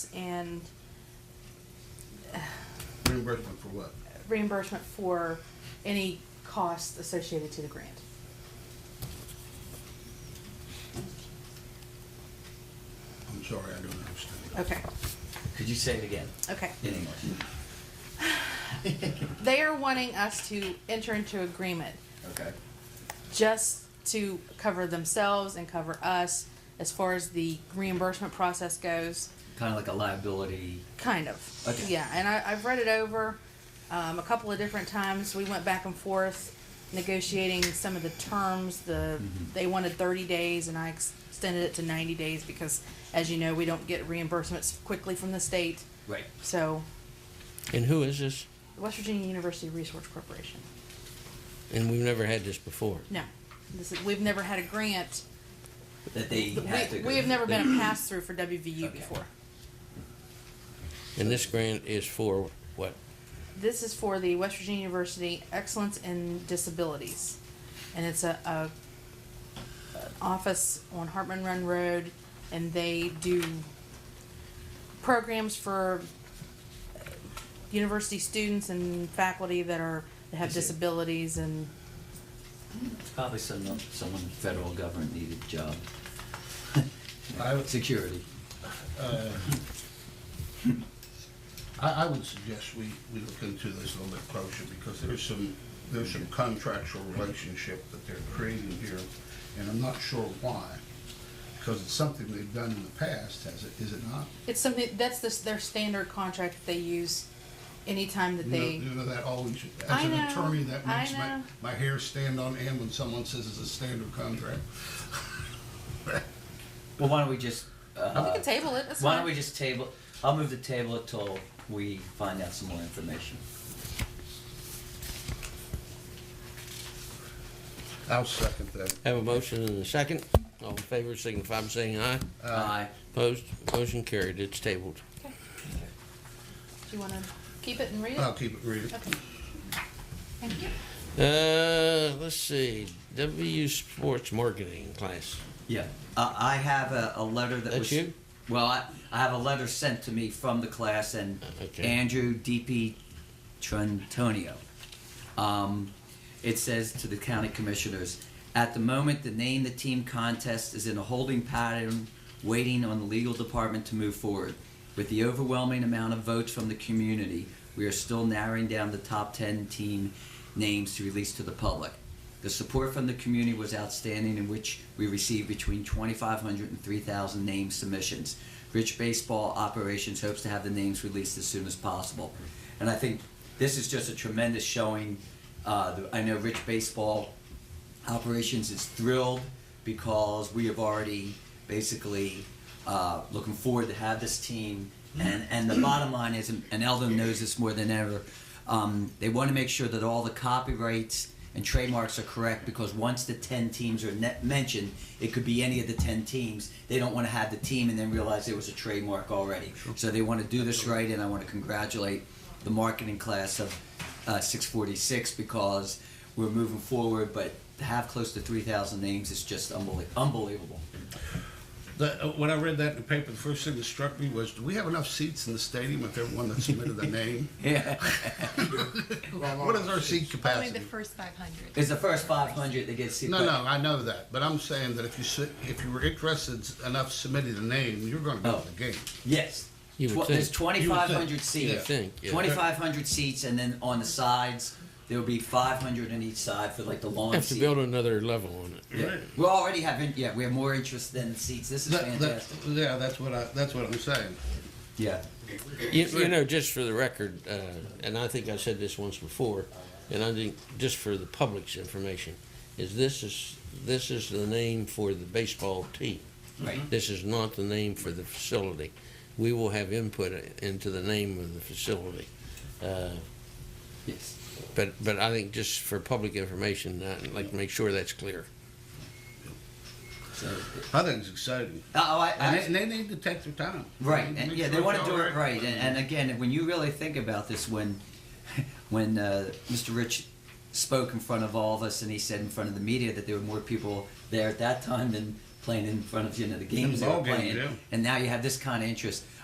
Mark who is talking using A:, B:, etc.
A: and
B: Reimbursement for what?
A: reimbursement for any costs associated to the grant.
B: I'm sorry, I don't understand.
A: Okay,
C: Could you say it again?
A: okay.
C: In English.
A: They are wanting us to enter into agreement
C: Okay.
A: just to cover themselves and cover us as far as the reimbursement process goes.
C: Kind of like a liability.
A: Kind of.
C: Okay.
A: Yeah, and I, I've read it over um, a couple of different times. We went back and forth negotiating some of the terms. The
C: Mm-hmm.
A: they wanted 30 days, and I ex- extended it to 90 days because, as you know, we don't get reimbursements quickly from the state.
C: Right.
A: So,
D: And who is this?
A: West Virginia University Resource Corporation.
D: And we've never had this before.
A: No, this is, we've never had a grant.
C: That they have
A: We,
C: to go.
A: we have never been a pass through for WVU
C: Okay.
A: before.
D: And this grant is for what?
A: This is for the West Virginia University Excellence in Disabilities, and it's a, a an office on Hartman Run Road, and they do programs for uh, university students and faculty that are that have
C: I see.
A: disabilities and
C: It's Probably some, someone federal government needed job.
B: I would-
C: Security.
B: I, I would suggest we, we look into this a little bit closer because there's some, there's some contractual relationship that they're creating here, and I'm not sure why. Because it's something they've done in the past, has it, is it not?
A: it's something that's this their standard contract that they use anytime that
B: You know,
A: they
B: you know that always,
A: I
B: as an
A: know,
B: attorney, that
A: I
B: makes my,
A: know.
B: my hair stand on end when someone says it's a standard contract.
C: Well, why don't we just,
A: we
C: uh,
A: can table it. That's
C: why
A: fine.
C: don't we just table, I'll move the table it till we find out some more information.
B: I'll second that.
D: Have a motion and a second. All in favor signify by saying aye.
C: Aye.
D: Opposed? Motion carried. It's tabled.
A: Do you want to keep it and read it?
C: Uh,
B: I'll keep it real.
A: Okay. Thank you.
D: Uh, let's see. W Sports Marketing class.
C: Yeah, uh, I have a, a letter that
D: That's
C: was.
D: you?
C: Well, I, I have a letter sent to me from the class and
D: Uh, Okay.
C: Andrew D.P. Trentonio. Um, it says to the county commissioners, at the moment, the name the team contest is in a holding pattern, waiting on the legal department to move forward. With the overwhelming amount of votes from the community, we are still narrowing down the top 10 team names to release to the public. The support from the community was outstanding, in which we received between 2,500 and 3,000 name submissions. Rich Baseball Operations hopes to have the names released as soon as possible. And I think this is just a tremendous showing. Uh, the- I know Rich Baseball Operations is thrilled because we have already basically uh, looking forward to have this team. And, and the bottom line is, and Eldon knows this more than ever, um, they want to make sure that all the copyrights and trademarks are correct because once the 10 teams are net mentioned, it could be any of the 10 teams. They don't want to have the team and then realize there was a trademark already. So they want to do this right, and I want to congratulate the marketing class of uh, 646 because we're moving forward, but to have close to 3,000 names is just unbelie- unbelievable.
B: The, uh, when I read that in the paper, the first thing that struck me was, do we have enough seats in the stadium if everyone that submitted a name?
C: Yeah.
B: What is our seat
E: Only the
B: capacity?
E: first five hundred.
C: It's the first 500 that gets
B: No, no, I know that, but I'm saying that if you sit, if you were interested enough submitting a name, you're going to go to
C: Oh.
B: the game.
C: Yes.
D: You would
C: Tw- There's
D: think.
C: twenty-five
B: You would think,
C: hundred seats.
B: yeah. You would
D: think, yeah.
C: Twenty-five hundred seats, and then on the sides, there'll be five hundred on each side for like the lawn
D: Have to
C: seat.
D: build another level on it.
C: yeah. We already have, in- yeah, we have more interest than seats. This is
B: That- that-
C: fantastic.
B: yeah, that's what I, that's what I'm saying.
C: Yeah.
D: You, you know, just for the record, uh, and I think I said this once before, and I think just for the public's information, is this is this is the name for the baseball team.
C: Right.
D: This is not the name for the facility. We will have input into the name of the facility. Uh,
C: Yes.
D: but but I think just for public information, I'd like to make sure that's clear.
C: So, uh,
B: I think it's exciting.
C: oh, I,
B: And they,
C: I,
B: and they need to take their time.
C: Right,
B: Make
C: and yeah,
B: sure
C: they want
B: it's
C: to do
B: all
C: it right. And, and again, when you really think about this, when when uh, Mr. Rich spoke in front of all of us, and he said in front of the media that there were more people there at that time than playing in front of you know the games they
B: ball
C: were
B: games,
C: playing.
B: yeah.
C: And now you have this kind of interest.